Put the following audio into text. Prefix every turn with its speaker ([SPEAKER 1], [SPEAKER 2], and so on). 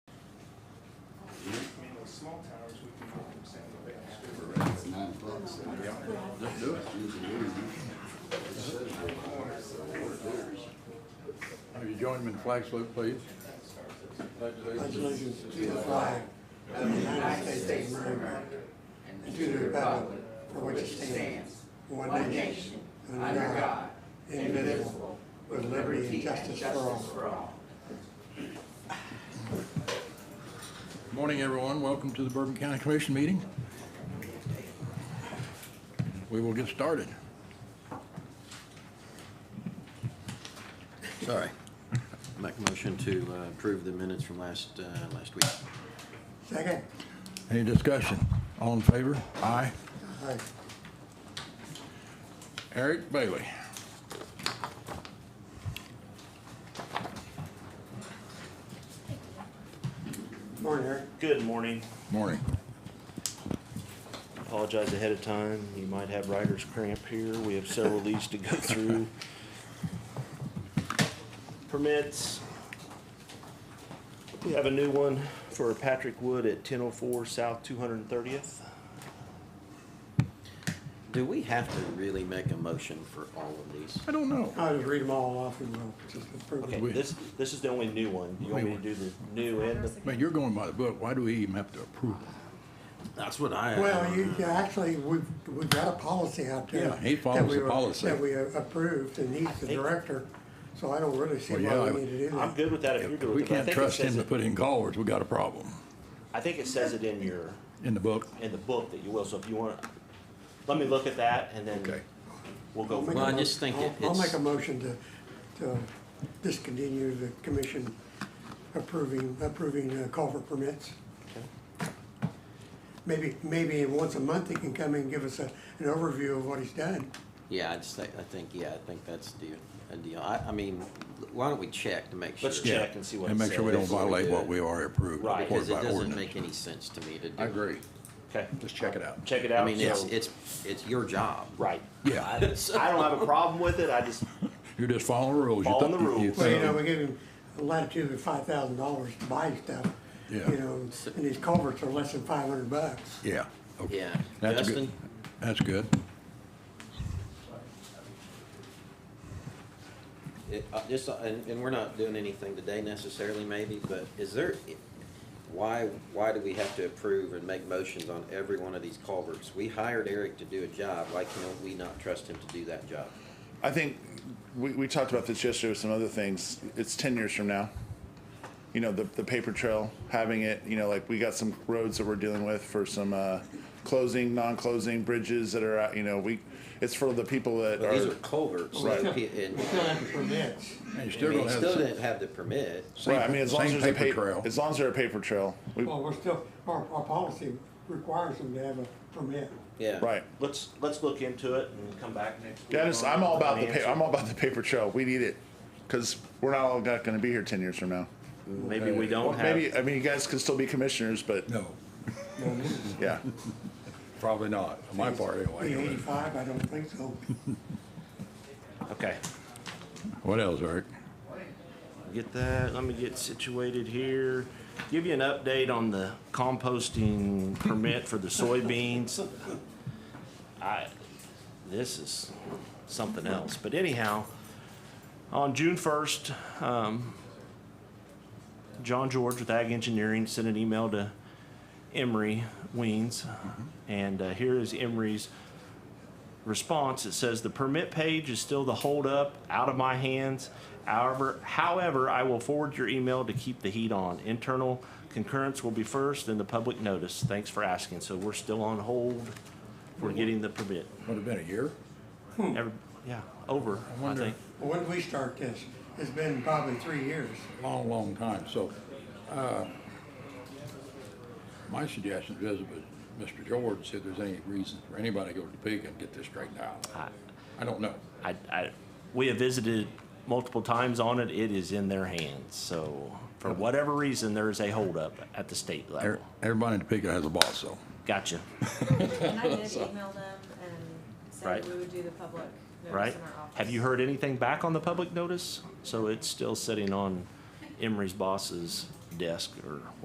[SPEAKER 1] small towers, we can go from San Diego.
[SPEAKER 2] It's nine o'clock, so just do it. You can do it. It says we're four theaters.
[SPEAKER 3] Will you join me in flag salute, please?
[SPEAKER 4] allegiance to the flag of the United States of America and to the republic for which it stands, one nation, under God, indivisible, with liberty and justice for all.
[SPEAKER 3] Good Morning, everyone. Welcome to the Bourbon County Commission meeting. We will get started.
[SPEAKER 5] Sorry. Make a motion to uh, approve the minutes from last, uh, last week.
[SPEAKER 4] Second?
[SPEAKER 3] Any discussion? All in favor? Aye.
[SPEAKER 4] Aye.
[SPEAKER 3] Eric Bailey.
[SPEAKER 4] Morning, Eric.
[SPEAKER 6] Good morning.
[SPEAKER 3] Morning.
[SPEAKER 6] Apologize ahead of time. You might have writer's cramp here. We have several of these to go through. Permits. We have a new one for Patrick Wood at ten oh four South two hundred and thirtieth.
[SPEAKER 5] Do we have to really make a motion for all of these?
[SPEAKER 3] I don't know.
[SPEAKER 4] I'll just read them all off and we'll just approve
[SPEAKER 6] Okay,
[SPEAKER 4] it.
[SPEAKER 3] We-
[SPEAKER 6] this, this is the only new one. You want me to do the new and the,
[SPEAKER 3] Man, you're going by the book. Why do we even have to approve?
[SPEAKER 5] That's what I. uh,
[SPEAKER 4] Well, you, you actually, we've, we've got a policy out there.
[SPEAKER 3] Yeah, he
[SPEAKER 4] that
[SPEAKER 3] follows
[SPEAKER 4] we
[SPEAKER 3] the
[SPEAKER 4] were-
[SPEAKER 3] policy.
[SPEAKER 4] That we approved and he's the
[SPEAKER 6] Hey.
[SPEAKER 4] director, so I don't really see
[SPEAKER 3] Well, yeah,
[SPEAKER 4] why
[SPEAKER 3] I-
[SPEAKER 4] we need to do that.
[SPEAKER 6] I'm good with that if you're good
[SPEAKER 3] We
[SPEAKER 6] with it. but I
[SPEAKER 3] can't
[SPEAKER 6] think it
[SPEAKER 3] trust him
[SPEAKER 6] says
[SPEAKER 3] to
[SPEAKER 6] it-
[SPEAKER 3] put in callers. We got a problem
[SPEAKER 6] I think it says it in your,
[SPEAKER 3] in the book.
[SPEAKER 6] in the book that you will, so if you want, let me look at that and
[SPEAKER 3] Okay.
[SPEAKER 6] then we'll go.
[SPEAKER 4] I'll
[SPEAKER 6] from
[SPEAKER 4] make a
[SPEAKER 5] Well, I
[SPEAKER 4] mo-
[SPEAKER 5] just think it-
[SPEAKER 4] I'll- I'll make
[SPEAKER 5] it's-
[SPEAKER 4] a motion to, to discontinue the commission approving, approving uh, culvert permits. Maybe, maybe once a month he can come in and give us a, an overview of what he's done.
[SPEAKER 5] Yeah, I just think, I think, yeah, I think that's the, a deal. I, I mean, why don't we check to make sure?
[SPEAKER 6] Let's
[SPEAKER 3] Yeah.
[SPEAKER 6] check and see what
[SPEAKER 3] And
[SPEAKER 6] it
[SPEAKER 3] make sure we don't
[SPEAKER 6] says.
[SPEAKER 3] violate what we already approved.
[SPEAKER 6] Right.
[SPEAKER 3] reported
[SPEAKER 5] Because it
[SPEAKER 3] by
[SPEAKER 5] doesn't
[SPEAKER 3] ordinance.
[SPEAKER 5] make any sense to me to do.
[SPEAKER 3] I agree.
[SPEAKER 6] Okay,
[SPEAKER 3] Just check it out.
[SPEAKER 6] check it
[SPEAKER 5] I
[SPEAKER 6] out.
[SPEAKER 5] mean, it's,
[SPEAKER 6] so-
[SPEAKER 5] it's, it's your job.
[SPEAKER 6] Right.
[SPEAKER 3] Yeah.
[SPEAKER 6] I I don't have a problem with it, I just,
[SPEAKER 3] You're just following the rules. You
[SPEAKER 6] Following
[SPEAKER 3] thought-
[SPEAKER 6] the
[SPEAKER 3] you- you
[SPEAKER 6] rules.
[SPEAKER 4] Well, you
[SPEAKER 3] thought-
[SPEAKER 4] know, we gave him a latitude of five thousand dollars to buy stuff.
[SPEAKER 3] Yeah.
[SPEAKER 4] You know, and these culverts are less than five hundred bucks.
[SPEAKER 3] Yeah. okay.
[SPEAKER 5] Yeah.
[SPEAKER 3] That's good.
[SPEAKER 5] Justin?
[SPEAKER 3] That's good.
[SPEAKER 5] It, uh, just, uh, and, and we're not doing anything today necessarily maybe, but is there, why, why do we have to approve and make motions on every one of these culverts? We hired Eric to do a job, why can't we not trust him to do that job?
[SPEAKER 7] I think we, we talked about this yesterday with some other things. It's ten years from now. You know, the, the paper trail, having it, you know, like we got some roads that we're dealing with for some, uh, closing, non-closing bridges that are, out. you know, we, it's for the people that
[SPEAKER 5] These are
[SPEAKER 7] are.
[SPEAKER 5] culverts, so
[SPEAKER 7] Right.
[SPEAKER 5] pe- and,
[SPEAKER 4] We still have the permits.
[SPEAKER 3] And you
[SPEAKER 5] I
[SPEAKER 3] still
[SPEAKER 5] mean,
[SPEAKER 3] don't
[SPEAKER 5] he
[SPEAKER 3] have
[SPEAKER 5] still
[SPEAKER 3] the-
[SPEAKER 5] didn't have the permit.
[SPEAKER 3] same-
[SPEAKER 7] Right, I mean, as long as
[SPEAKER 3] same
[SPEAKER 7] there's a
[SPEAKER 3] paper
[SPEAKER 7] paper,
[SPEAKER 3] trail.
[SPEAKER 7] as long as there's a paper trail, we,
[SPEAKER 4] Well, we're still, our, our policy requires them to have a permit.
[SPEAKER 5] Yeah.
[SPEAKER 7] right.
[SPEAKER 6] let's, let's look into it and come back next week.
[SPEAKER 7] Yeah, I just, I'm all about the
[SPEAKER 6] Answer.
[SPEAKER 7] pa, I'm all about the paper trail. We need it. Cause we're not all not gonna be here ten years from now.
[SPEAKER 6] Maybe we
[SPEAKER 7] Well,
[SPEAKER 6] don't
[SPEAKER 7] maybe,
[SPEAKER 6] have,
[SPEAKER 7] I mean, you guys could still be commissioners, but
[SPEAKER 3] No,
[SPEAKER 7] yeah.
[SPEAKER 3] probably not, on my part
[SPEAKER 4] Be
[SPEAKER 3] anyway.
[SPEAKER 4] Eighty-five, I don't think so.
[SPEAKER 6] okay.
[SPEAKER 3] What else, Eric?
[SPEAKER 6] Get that, let me get situated here. Give you an update on the composting permit for the soybeans. I, this is something else, but anyhow, on June first, um, John George with Ag Engineering sent an email to Emery Weens, and uh, here is Emery's response, it says the permit page is still the holdup, out of my hands. However, however, I will forward your email to keep the heat on. Internal concurrence will be first, then the public notice. Thanks for asking. So we're still on hold for getting the permit.
[SPEAKER 3] Would have been a year?
[SPEAKER 6] Every- Yeah, over, I
[SPEAKER 3] wonder-
[SPEAKER 6] think.
[SPEAKER 4] When did we start this? It's been probably three years.
[SPEAKER 3] Long, long time, so, uh, my suggestion is visit with Mr. George, see if there's any reason for anybody to go to Topeka and get this straightened out.
[SPEAKER 6] I,
[SPEAKER 3] I don't know.
[SPEAKER 6] I, I, we have visited multiple times on it. It is in their hands. So for whatever reason, there is a holdup at the state level.
[SPEAKER 3] Everybody in Topeka has a boss, so.
[SPEAKER 6] Gotcha.
[SPEAKER 8] And I did email them and said
[SPEAKER 6] Right.
[SPEAKER 8] that we would do the public notice
[SPEAKER 6] right?
[SPEAKER 8] in our office.
[SPEAKER 6] Have you heard anything back on the public notice? So it's still sitting on Emery's boss's desk or